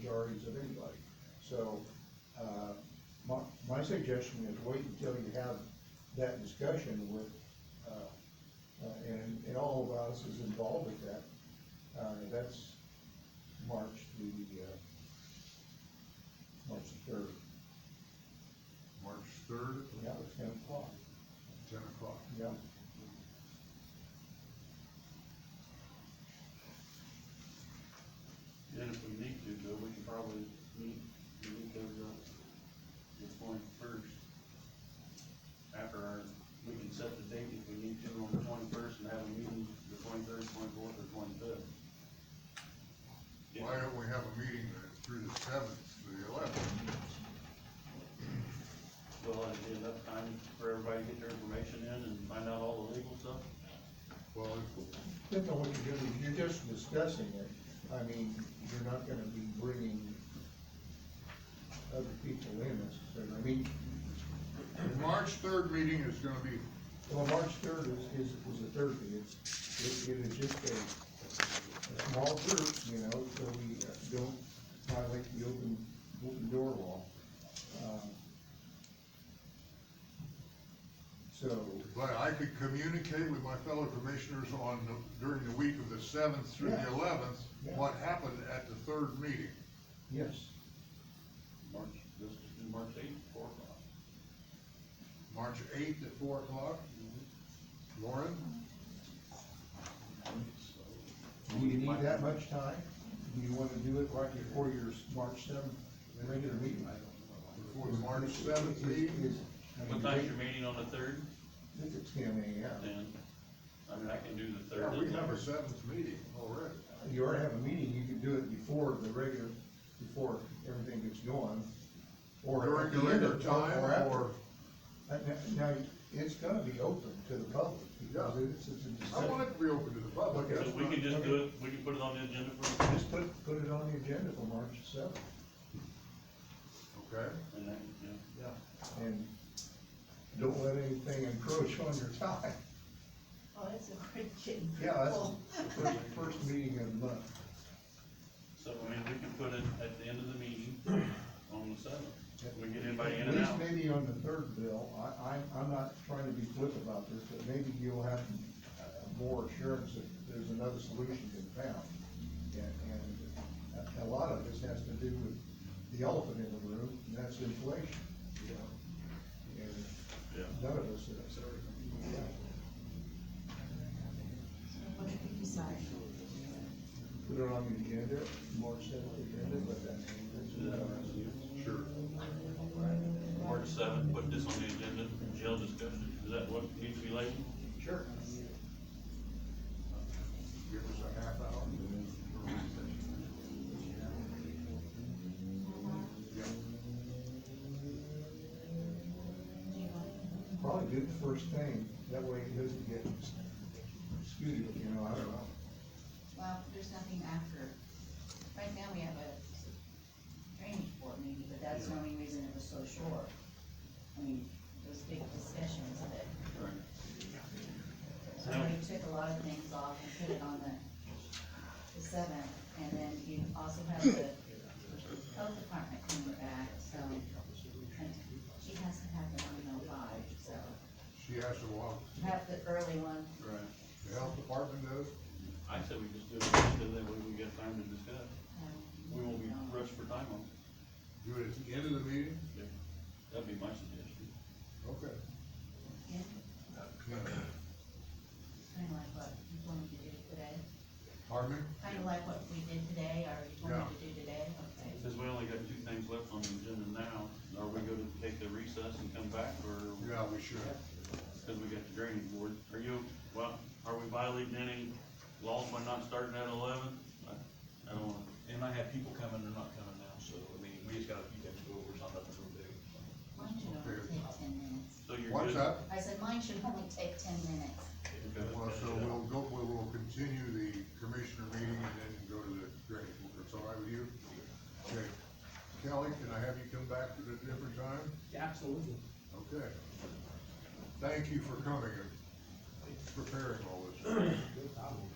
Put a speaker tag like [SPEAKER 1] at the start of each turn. [SPEAKER 1] priorities of anybody. So, uh, my, my suggestion is wait until you have that discussion with, uh, uh, and, and all of us is involved with that. Uh, that's March the, uh, March the third,
[SPEAKER 2] March third,
[SPEAKER 1] yeah, it's ten o'clock,
[SPEAKER 2] ten o'clock.
[SPEAKER 1] yeah.
[SPEAKER 3] Then if we need to, Bill, we can probably meet, we meet those up the twenty-first. After our, we can set the date if we need to on the twenty-first and have a meeting the twenty-third, twenty-fourth, or twenty-fifth.
[SPEAKER 2] Why don't we have a meeting the- through the seventh to the eleventh?
[SPEAKER 3] Well, it'd be enough time for everybody to get their information in and find out all the legal stuff.
[SPEAKER 2] Well, if-
[SPEAKER 1] Depends on what you're doing, you're just discussing it, I mean, you're not gonna be bringing other people in necessarily, I mean,
[SPEAKER 2] the March third meeting is gonna be,
[SPEAKER 1] well, March third is, is, is a Thursday, it's, it, it is just a, a small group, you know, so we uh, don't violate the open, open door law. Um, So,
[SPEAKER 2] but I could communicate with my fellow commissioners on, the- during the week of the seventh through the
[SPEAKER 1] Yeah.
[SPEAKER 2] eleventh,
[SPEAKER 1] Yeah.
[SPEAKER 2] what happened at the third meeting.
[SPEAKER 1] yes,
[SPEAKER 3] March, this is due March eighth, four o'clock.
[SPEAKER 2] March eighth at four o'clock. Lauren,
[SPEAKER 1] do you need that much time? Do you wanna do it right before your March seventh regular meeting?
[SPEAKER 2] before the March seventh meeting,
[SPEAKER 1] Is- I mean,
[SPEAKER 3] What time's your meeting on the third?
[SPEAKER 1] I think it's ten AM.
[SPEAKER 3] Then, I mean, I can do the
[SPEAKER 2] yeah,
[SPEAKER 3] third.
[SPEAKER 2] we have a seventh meeting already.
[SPEAKER 1] You already have a meeting, you can do it before the regular, before everything gets going. or
[SPEAKER 2] During
[SPEAKER 1] at the
[SPEAKER 2] the
[SPEAKER 1] end
[SPEAKER 2] regular
[SPEAKER 1] of-
[SPEAKER 2] time
[SPEAKER 1] after.
[SPEAKER 2] or,
[SPEAKER 1] Uh, Now, now, it's gonna be open to the public, because
[SPEAKER 2] Yeah.
[SPEAKER 1] it's, it's a
[SPEAKER 2] I want
[SPEAKER 1] discussion.
[SPEAKER 2] it to be open to the public.
[SPEAKER 3] So
[SPEAKER 2] that's
[SPEAKER 3] we
[SPEAKER 2] not-
[SPEAKER 3] can just do it, we can put it on the agenda for,
[SPEAKER 1] Just put, put it on the agenda for March seventh,
[SPEAKER 2] Okay.
[SPEAKER 3] and then, yeah.
[SPEAKER 1] and don't let anything encroach on your time.
[SPEAKER 4] Oh, that's a great kid.
[SPEAKER 1] Yeah, that's
[SPEAKER 4] Well,
[SPEAKER 1] the first, first meeting of the month,
[SPEAKER 3] So, I mean, we can put it at the end of the meeting on the seventh. We get anybody in
[SPEAKER 1] At
[SPEAKER 3] and
[SPEAKER 1] least
[SPEAKER 3] out.
[SPEAKER 1] maybe on the third bill, I, I'm, I'm not trying to be flip about this, but maybe you'll have uh, more assurance that there's another solution been found. And, and a- a lot of this has to do with the elephant in the room, and that's inflation. And
[SPEAKER 3] Yeah.
[SPEAKER 1] none of us is.
[SPEAKER 4] so What did we decide?
[SPEAKER 1] Put it on the agenda, March seventh agenda, but that's.
[SPEAKER 2] Sure.
[SPEAKER 3] March seventh, put this on the agenda, jail discussion, is that what needs to be labeled?
[SPEAKER 1] Sure.
[SPEAKER 2] Give us a half hour.
[SPEAKER 1] Probably do the first thing, that way it doesn't get skewed, you know, I don't know.
[SPEAKER 4] Well, there's nothing after. Right now, we have a drainage board meeting, but that's the only reason it was so short. I mean, those big discussions that, so
[SPEAKER 3] No.
[SPEAKER 4] we took a lot of things off and put it on the, the seventh. And then you also have the health department coming back, so, and she has to have the one oh five, so.
[SPEAKER 2] She has to walk,
[SPEAKER 4] Have the early one,
[SPEAKER 3] Right.
[SPEAKER 2] the health department does,
[SPEAKER 3] I said we just do it, just so that way we get time to discuss.
[SPEAKER 4] um,
[SPEAKER 3] We won't be
[SPEAKER 4] um,
[SPEAKER 3] rushed for time on, it.
[SPEAKER 2] do it at the end of the meeting,
[SPEAKER 3] that'd be my suggestion.
[SPEAKER 2] okay.
[SPEAKER 4] yeah.
[SPEAKER 2] Yeah.
[SPEAKER 4] Kind of like what you wanted to do today,
[SPEAKER 2] Pardon me?
[SPEAKER 4] kind of like what we did today, or you
[SPEAKER 2] Yeah.
[SPEAKER 4] wanted to do today, okay?
[SPEAKER 3] Since we only got two things left on the agenda now, are we gonna take the recess and come back, or?
[SPEAKER 2] Yeah, we should.
[SPEAKER 3] Cause we got the drainage board, are you, well, are we violating any laws by not starting at eleven? I don't wanna
[SPEAKER 5] And I have people coming, they're not coming now, so, I mean, we just got a few things to go over, it's not nothing real big.
[SPEAKER 4] Mine should only take ten minutes.
[SPEAKER 3] So you're
[SPEAKER 2] What's
[SPEAKER 3] good?
[SPEAKER 2] that?
[SPEAKER 4] I said mine should only take ten minutes.
[SPEAKER 3] Okay.
[SPEAKER 2] Well, so we'll go, we will continue the commissioner meeting and then go to the drainage board, that's all right with you? Okay. Kelly, can I have you come back at a different time?
[SPEAKER 6] Absolutely.
[SPEAKER 2] Okay. Thank you for coming and preparing all this.
[SPEAKER 6] No problem.